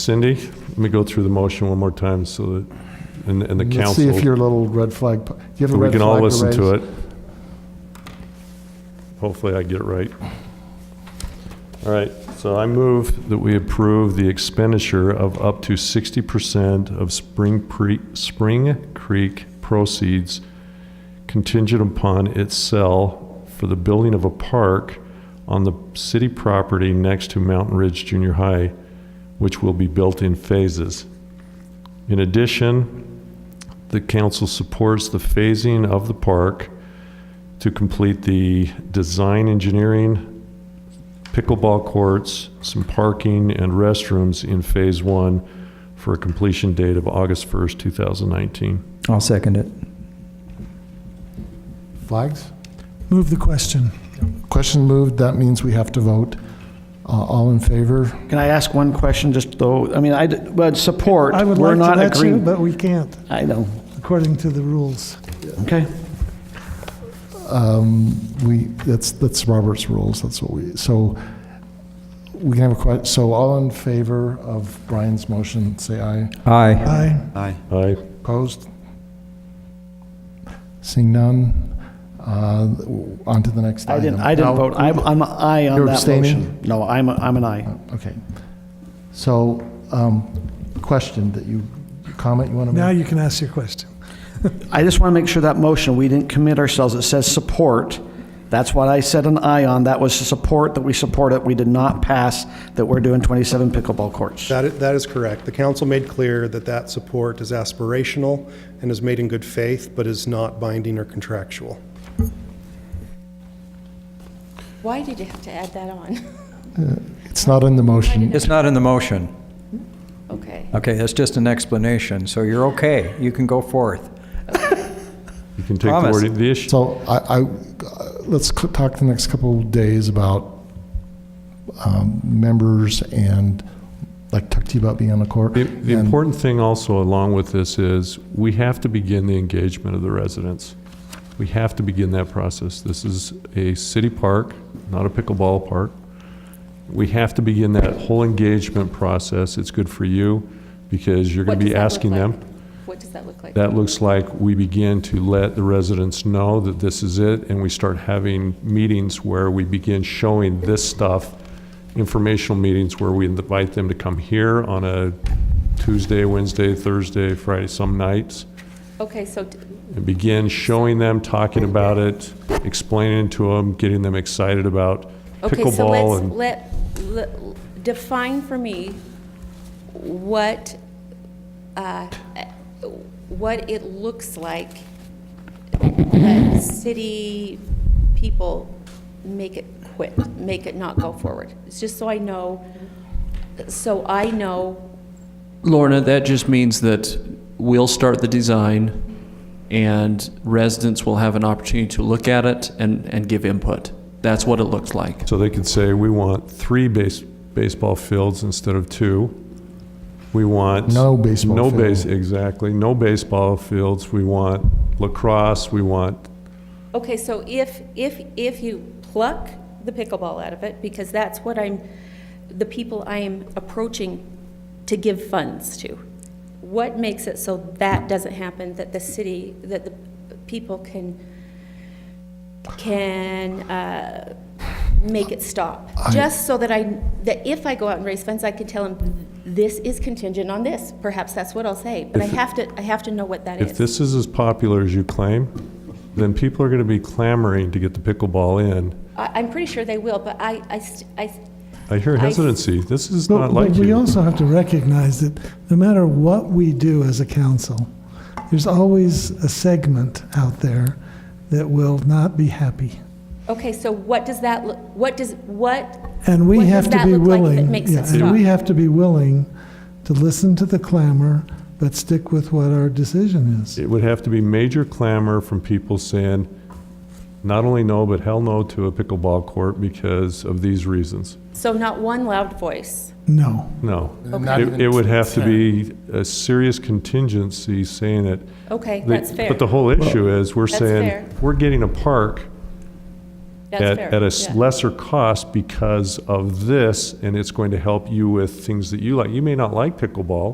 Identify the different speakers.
Speaker 1: Cindy, let me go through the motion one more time so that, and, and the
Speaker 2: Let's
Speaker 1: council.
Speaker 2: see if your little red flag, do you have a
Speaker 1: We
Speaker 2: red
Speaker 1: can
Speaker 2: flag
Speaker 1: all listen to
Speaker 2: raise?
Speaker 1: it. Hopefully I get it right. All right, so I move that we approve the expenditure of up to 60% of Spring Pre, Spring Creek proceeds contingent upon its sale for the building of a park on the city property next to Mountain Ridge Junior High, which will be built in phases. In addition, the council supports the phasing of the park to complete the design engineering, pickleball courts, some parking and restrooms in Phase One for a completion date of August 1st, 2019.
Speaker 3: I'll second it.
Speaker 2: Flags?
Speaker 4: Move the question.
Speaker 2: Question moved, that means we have to vote. Uh, All in favor?
Speaker 5: Can I ask one question, just though, I mean, I, but support,
Speaker 4: I would
Speaker 5: we're
Speaker 4: like to
Speaker 5: not
Speaker 4: let you,
Speaker 5: agreeing.
Speaker 4: but we can't,
Speaker 5: I know,
Speaker 4: according to the rules.
Speaker 5: okay.
Speaker 2: We, that's, that's Robert's rules, that's what we, so we can have a que, so all in favor of Brian's motion, say aye.
Speaker 3: Aye.
Speaker 4: Aye.
Speaker 1: Aye.
Speaker 2: Opposed? Seeing none, uh, on to the next
Speaker 5: I
Speaker 2: item.
Speaker 5: didn't, I
Speaker 2: Now-
Speaker 5: didn't vote, I'm, I'm an aye on
Speaker 2: You're
Speaker 5: that
Speaker 2: abstaining?
Speaker 5: motion. No, I'm, a- I'm an aye.
Speaker 2: Okay. So, um, question that you, comment you want to make?
Speaker 4: Now you can ask your question.
Speaker 5: I just want to make sure that motion, we didn't commit ourselves, it says support. That's what I said an aye on, that was to support, that we support it, we did not pass, that we're doing 27 pickleball courts.
Speaker 6: That i- that is correct. The council made clear that that support is aspirational and is made in good faith, but is not binding or contractual.
Speaker 7: Why did you have to add that on?
Speaker 2: It's not in the motion.
Speaker 3: It's not in the motion.
Speaker 7: Okay.
Speaker 3: Okay, that's just an explanation, so you're okay. You can go forth.
Speaker 1: You can take the
Speaker 3: Promise.
Speaker 1: word, the issue,
Speaker 2: So I, I, let's c- talk the next couple of days about um, members and, like, talk to you about being on the court.
Speaker 1: the the
Speaker 2: And-
Speaker 1: important thing also along with this is, we have to begin the engagement of the residents. We have to begin that process. This is a city park, not a pickleball park. We have to begin that whole engagement process. It's good for you because you're
Speaker 7: What
Speaker 1: going to be
Speaker 7: does that look
Speaker 1: asking
Speaker 7: like?
Speaker 1: them.
Speaker 7: What does that look like?
Speaker 1: That looks like we begin to let the residents know that this is it, and we start having meetings where we begin showing this stuff, informational meetings where we invite them to come here on a Tuesday, Wednesday, Thursday, Friday, some nights,
Speaker 7: Okay, so d-
Speaker 1: and begin showing them, talking about it, explaining to them, getting them excited about
Speaker 7: Okay, so
Speaker 1: pickleball
Speaker 7: let's,
Speaker 1: and
Speaker 7: let, le- define for me what, uh, what it looks like that city people make it quit, make it not go forward. It's just so I know, so I know
Speaker 8: Lorna, that just means that we'll start the design and residents will have an opportunity to look at it and, and give input. That's what it looks like.
Speaker 1: So they could say, we want three base, baseball fields instead of two. We want.
Speaker 2: No baseball
Speaker 1: No
Speaker 2: field.
Speaker 1: base, exactly, no baseball fields. We want lacrosse, we want,
Speaker 7: Okay, so if, if, if you pluck the pickleball out of it, because that's what I'm, the people I am approaching to give funds to, what makes it so that doesn't happen, that the city, that the people can, can uh, make it stop? Just so that I, that if I go out and raise funds, I can tell them, this is contingent on this. Perhaps that's what I'll say, but I have to, I have to know what that
Speaker 1: if
Speaker 7: is.
Speaker 1: this is as popular as you claim, then people are gonna be clamoring to get the pickleball in.
Speaker 7: I, I'm pretty sure they will, but I, I st- I,
Speaker 1: I hear
Speaker 7: I-
Speaker 1: hesitancy. This is
Speaker 4: But-
Speaker 1: not like
Speaker 4: But we
Speaker 1: you.
Speaker 4: also have to recognize that no matter what we do as a council, there's always a segment out there that will not be happy.
Speaker 7: Okay, so what does that, look? what does, what,
Speaker 4: And we
Speaker 7: What does
Speaker 4: have to
Speaker 7: that
Speaker 4: be
Speaker 7: look like that
Speaker 4: willing.
Speaker 7: makes it
Speaker 4: yeah,
Speaker 7: stop?
Speaker 4: And we have to be willing to listen to the clamor, but stick with what our decision is.
Speaker 1: It would have to be major clamor from people saying, not only no, but hell no to a pickleball court because of these reasons.
Speaker 7: so not one loud voice?
Speaker 4: No.
Speaker 1: No.
Speaker 2: Not
Speaker 1: It,
Speaker 2: even
Speaker 1: it would have to be a serious contingency saying it.
Speaker 7: Okay,
Speaker 1: The-
Speaker 7: that's fair.
Speaker 1: But the whole issue is, we're
Speaker 7: That's
Speaker 1: saying,
Speaker 7: fair.
Speaker 1: we're getting a park
Speaker 7: That's
Speaker 1: at,
Speaker 7: fair,
Speaker 1: at a
Speaker 7: yeah.
Speaker 1: s- lesser cost because of this, and it's going to help you with things that you like. You may not like pickleball,